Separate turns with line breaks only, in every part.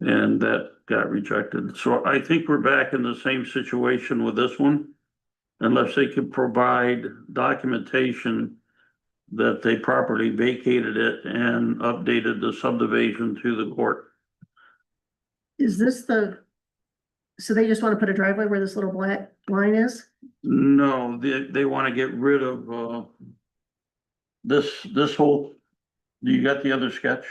And that got rejected. So I think we're back in the same situation with this one. Unless they can provide documentation that they properly vacated it and updated the subdivision to the court.
Is this the, so they just want to put a driveway where this little black line is?
No, they, they wanna get rid of, uh, this, this whole, you got the other sketch?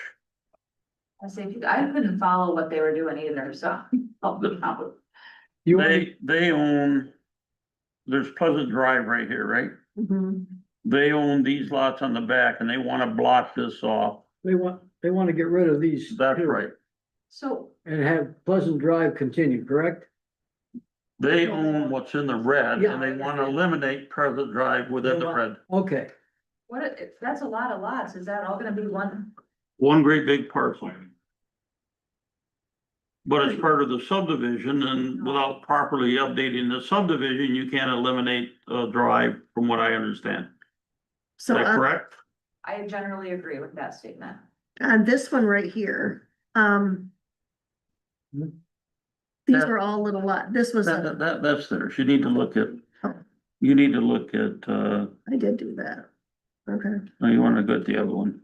I say, I couldn't follow what they were doing either, so. help them out.
You, want-
They, they own, there's Pleasant Drive right here, right? They own these lots on the back and they wanna block this off.
they want, they want to get rid of these.
That's
two
right.
So,
And have Pleasant Drive continue, correct?
They own what's in the red and they
Yeah.
wanna eliminate Pleasant Drive within the red.
Okay,
what, if- that's a lot of lots, is that all gonna be one?
One great big parcel. But it's part of the subdivision and without properly updating the subdivision, you can't eliminate a drive from what I understand. Is
So
that
on,
correct?
I generally agree with that statement.
on this one right here, um. These
Hmm. That-
are all little lot, this was,
That,
a-
that- that, that's theirs. You need to look at,
Oh.
you need to look at, uh,
I did do that. Okay,
oh, you wanna go to the other one.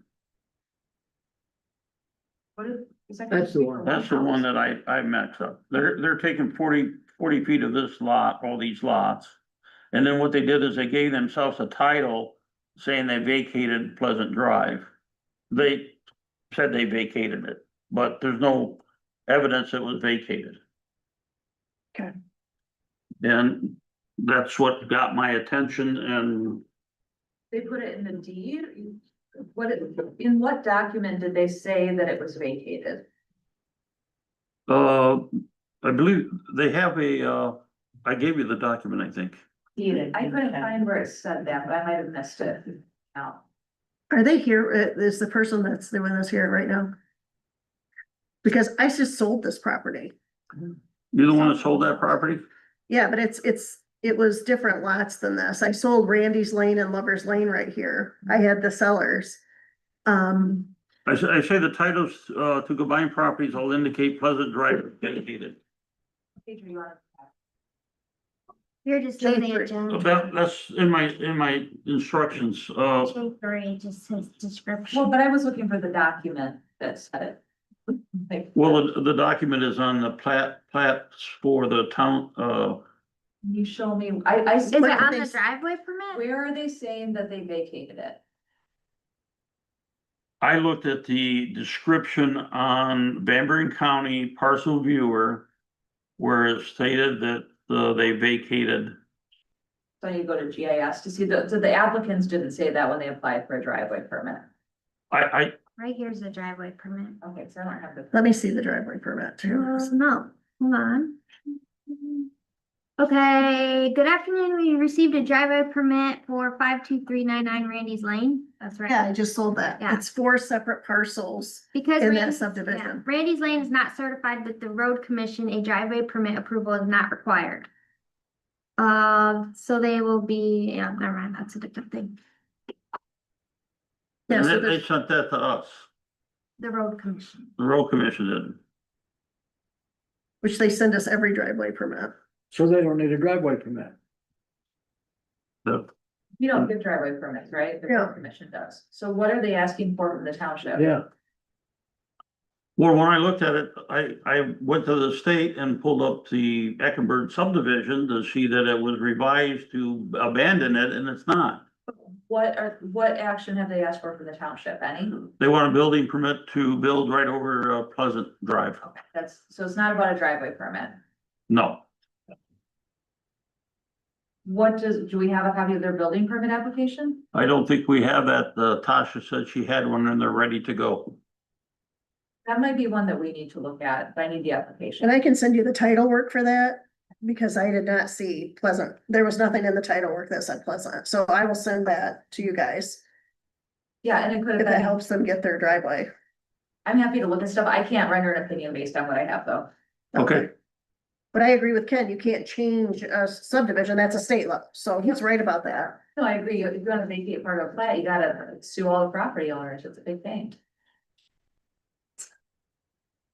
What is? is that
That's the
gonna be
one.
for
That's the
house?
one that I, I messed up. They're, they're taking 40 40 feet of this lot, all these lots. And then what they did is they gave themselves a title saying they vacated Pleasant Drive. They said they vacated it, but there's no evidence it was vacated.
Okay.
And that's what got my attention and
They put it in the deed, what, it- in what document did they say that it was vacated?
Uh, I believe they have a, uh, I gave you the document, I think.
Deeded, I couldn't find where it said that, but I might have missed it. No,
are they here, uh, is the person that's doing this here right now? Because I just sold this property,
You're the one that sold that property?
yeah, but it's, it's, it was different lots than this, I sold Randy's Lane and Lover's Lane right here, I had the sellers. Um,
I say, I say the titles, uh, to combined properties all indicate Pleasant Drive dedicated.
Adrian, you wanna-
You're just leaving it, Jen.
That, that's in my, in my instructions, uh,
Two, three, it just says
well,
description.
but I was looking for the document that said it. Like,
well, the, the document is on the plat, plats for the town, uh,
can You show me, I, I.
Is it on the
Thanks.
driveway permit?
Where are they saying that they vacated it?
I looked at the description on Van Buren County parcel viewer where it stated that, uh, they vacated
So you go to GIS to see the, so the applicants didn't say that when they applied for a driveway permit.
I, I,
Right here's the driveway permit.
Okay, so I don't have the.
let me see the driveway permit too.
Uh, No, hold on. Okay, good afternoon. We received a driveway permit for five two three nine nine Randy's Lane. That's
Yeah, I
right.
just sold that.
Yeah.
It's four separate parcels.
Because.
in that
Randy's- yeah,
subdivision.
Randy's Lane is not certified with the road commission. A driveway permit approval is not required. Uh, so they will be, yeah, never mind, that's a different thing.
Yeah,
and
so
they, they
there's,
sent that to us,
The road commission.
the road commission did.
which they send us every driveway permit.
so they don't need a driveway permit.
The,
You don't give driveway permits, right? The road
Yeah.
commission does. So what are they asking for from the township?
Yeah,
well, when I looked at it, I, I went to the state and pulled up the Eckenberg subdivision to see that it was revised to abandon it, and it's not.
What are, what action have they asked for from the township? Any?
They want a building permit to build right over uh, Pleasant Drive.
Okay, That's, so it's not about a driveway permit.
No,
What does, do we have a copy of their building permit application?
I don't think we have that. Uh, Tasha said she had one and they're ready to go.
That might be one that we need to look at, but I need the application.
And I can send you the title work for that because I did not see Pleasant. There was nothing in the title work that said Pleasant. So I will send that to you guys.
Yeah, and it could
If
have
that
been,
helps them get their driveway.
I'm happy to look at stuff. I can't render an opinion based on what I have though.
Okay.
But I agree with Ken, you can't change a subdivision. That's a state law. So he's right about that.
No, I agree. If you wanna vacate part of a plat, you gotta sue all the property owners. It's a big thing.